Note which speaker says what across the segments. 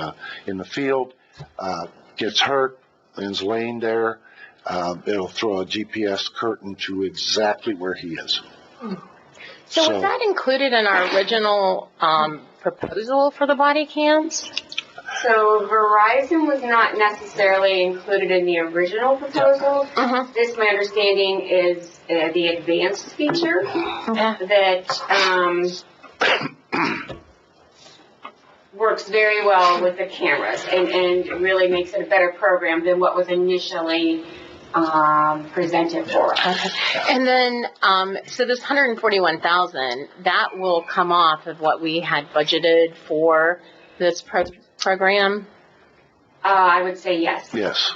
Speaker 1: uh, in the field, uh, gets hurt, is laying there, um, it'll throw a GPS curtain to exactly where he is.
Speaker 2: So
Speaker 1: So-
Speaker 2: was that included in our original um, proposal for the body cams?
Speaker 3: So Verizon was not necessarily included in the original proposal.
Speaker 2: Mm-hmm.
Speaker 3: This, my understanding, is uh, the advanced feature
Speaker 2: Yeah.
Speaker 3: that um, works very well with the cameras and, and really makes it a better program than what was initially um, presented for us.
Speaker 2: And then, um, so this 141,000, that will come off of what we had budgeted for this pro- program?
Speaker 3: Uh, I would say yes.
Speaker 1: Yes.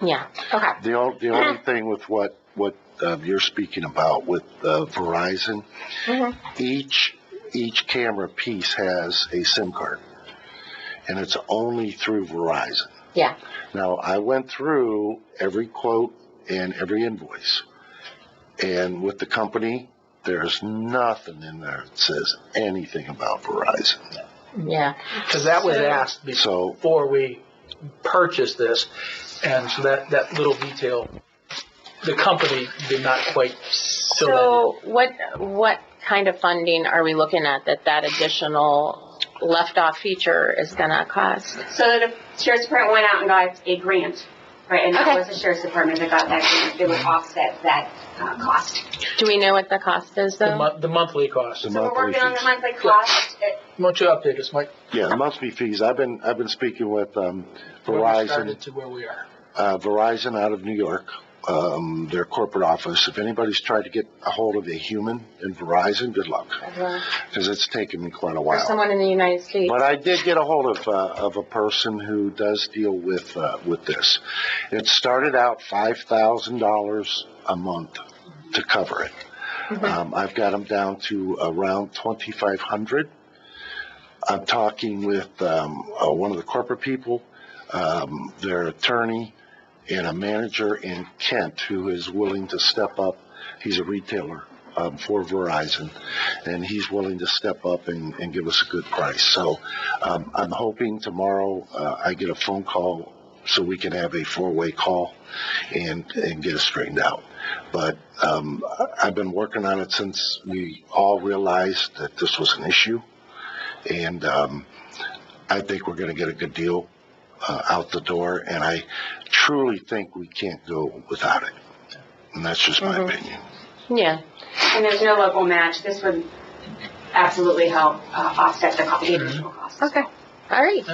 Speaker 2: Yeah, okay.
Speaker 1: The only, the only thing with what, what, um, you're speaking about with, uh, Verizon,
Speaker 2: Mhm.
Speaker 1: each, each camera piece has a SIM card. And it's only through Verizon.
Speaker 2: Yeah.
Speaker 1: Now, I went through every quote and every invoice. And with the company, there's nothing in there that says anything about Verizon.
Speaker 2: Yeah,
Speaker 4: Because that was
Speaker 3: So-
Speaker 4: asked
Speaker 1: So-
Speaker 4: before we purchased this, and so that, that little detail, the company did not quite fill that
Speaker 2: so what, what kind of funding are we looking at that that additional left-off feature is gonna cost?
Speaker 3: So the sheriff's department went out and got a grant, right? And that
Speaker 2: Okay.
Speaker 3: was the sheriff's department that got that grant. They would offset that uh, cost.
Speaker 2: Do we know what the cost is
Speaker 4: in. The
Speaker 2: though?
Speaker 4: mon- the monthly cost.
Speaker 1: The
Speaker 3: So we're
Speaker 1: monthly
Speaker 3: working on the
Speaker 1: fees.
Speaker 3: monthly cost. Uh,
Speaker 4: Why don't you update us, Mike?
Speaker 1: Yeah, monthly fees. I've been, I've been speaking with, um,
Speaker 4: where we
Speaker 1: Verizon.
Speaker 4: started To where we are.
Speaker 1: uh, Verizon out of New York, um, their corporate office. If anybody's tried to get a hold of a human in Verizon, good luck, because it's taken me quite a
Speaker 2: Or
Speaker 1: while.
Speaker 2: uh, someone in the United States?
Speaker 1: But I did get a hold of, uh, of a person who does deal with, uh, with this. It started out five thousand dollars a month to cover it. Um, I've got them down to around twenty-five hundred. I'm talking with, um, uh, one of the corporate people, um, their attorney and a manager in Kent who is willing to step up. He's a retailer, um, for Verizon and he's willing to step up and, and give us a good price. So, um, I'm hoping tomorrow, uh, I get a phone call so we can have a four-way call and, and get it straightened out. But, um, I- I've been working on it since we all realized that this was an issue. And, um, I think we're gonna get a good deal, uh, out the door, and I truly think we can't go without it. And that's just my
Speaker 2: Mhm.
Speaker 1: opinion.
Speaker 2: Yeah,
Speaker 3: And there's no local match. This would absolutely help uh, offset the co- the additional cost.
Speaker 2: okay, all right.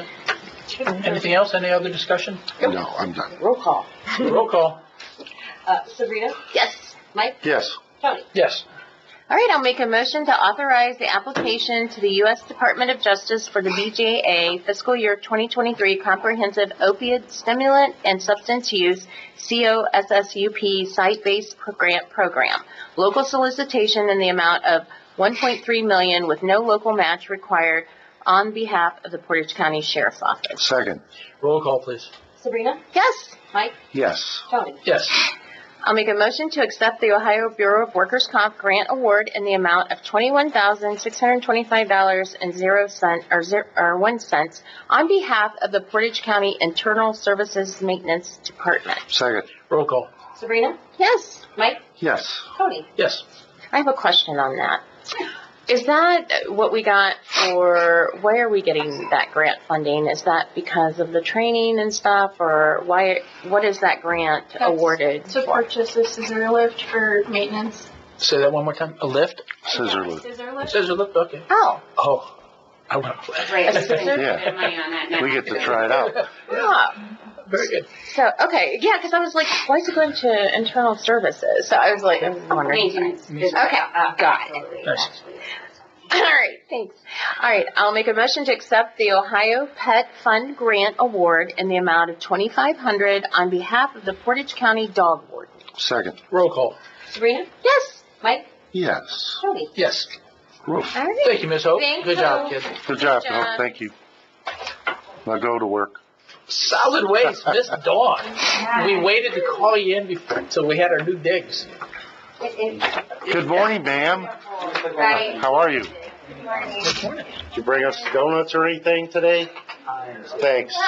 Speaker 4: Anything else? Any other discussion?
Speaker 1: No, I'm done.
Speaker 5: Roll call.
Speaker 4: Roll call.
Speaker 5: Uh, Sabrina?
Speaker 2: Yes.
Speaker 5: Mike?
Speaker 1: Yes.
Speaker 5: Tony?
Speaker 4: Yes.
Speaker 2: All right, I'll make a motion to authorize the application to the U.S. Department of Justice for the BJA Fiscal Year 2023 Comprehensive Opiate Stimulant and Substance Use COSSUP Site-Based Pro- Grant Program. Local solicitation in the amount of 1.3 million with no local match required on behalf of the Portage County Sheriff's Office.
Speaker 1: Second,
Speaker 4: Roll call, please.
Speaker 5: Sabrina?
Speaker 2: Yes.
Speaker 5: Mike?
Speaker 1: yes.
Speaker 5: Tony?
Speaker 4: Yes.
Speaker 2: I'll make a motion to accept the Ohio Bureau of Workers' Comp Grant Award in the amount of twenty-one thousand, six hundred and twenty-five dollars and zero cent, or zero, or one cents on behalf of the Portage County Internal Services Maintenance Department.
Speaker 1: Second,
Speaker 4: Roll call.
Speaker 5: Sabrina?
Speaker 2: Yes,
Speaker 5: Mike?
Speaker 1: yes.
Speaker 5: Tony?
Speaker 4: Yes.
Speaker 2: I have a question on that. Is that what we got for, why are we getting that grant funding? Is that because of the training and stuff, or why, what is that grant
Speaker 6: That's-
Speaker 2: awarded?
Speaker 6: To purchase a scissor lift for maintenance.
Speaker 4: Say that one more time. A lift?
Speaker 1: Scissor
Speaker 6: Yeah,
Speaker 1: lift.
Speaker 6: Scissor lift.
Speaker 4: Says a lift, okay.
Speaker 2: Oh,
Speaker 4: Oh, I want to play.
Speaker 3: Right.
Speaker 2: That's
Speaker 3: so we
Speaker 2: good.
Speaker 3: can spend money on that now.
Speaker 1: We get to try it out.
Speaker 2: yeah.
Speaker 4: Very good.
Speaker 2: So, okay, yeah, because I was like, why is it going to internal services? So I was like, I was wondering.
Speaker 3: Maintenance. is-
Speaker 2: Okay,
Speaker 3: uh,
Speaker 2: got it.
Speaker 3: absolutely,
Speaker 4: Nice.
Speaker 3: absolutely.
Speaker 2: All right, thanks. All right, I'll make a motion to accept the Ohio Pet Fund Grant Award in the amount of twenty-five hundred on behalf of the Portage County Dog Warden.
Speaker 1: Second,
Speaker 4: Roll call.
Speaker 5: Sabrina?
Speaker 2: Yes,
Speaker 5: Mike?
Speaker 1: yes.
Speaker 5: Tony?
Speaker 4: Yes.
Speaker 1: Roof.
Speaker 2: all right.
Speaker 4: Thank you, Ms. Hope.
Speaker 2: Thank
Speaker 4: Good job,
Speaker 2: you.
Speaker 4: kid.
Speaker 1: Good job,
Speaker 2: Good job.
Speaker 1: Bill. Thank you. Now go to work.
Speaker 4: Solid waste, Miss Dawn.
Speaker 3: Yeah.
Speaker 4: We waited to call you in before until we had our new digs.
Speaker 3: It-
Speaker 1: Good morning, ma'am.
Speaker 3: it- Right.
Speaker 1: How are you?
Speaker 3: Good morning.
Speaker 1: Did you bring us donuts or anything today? Thanks.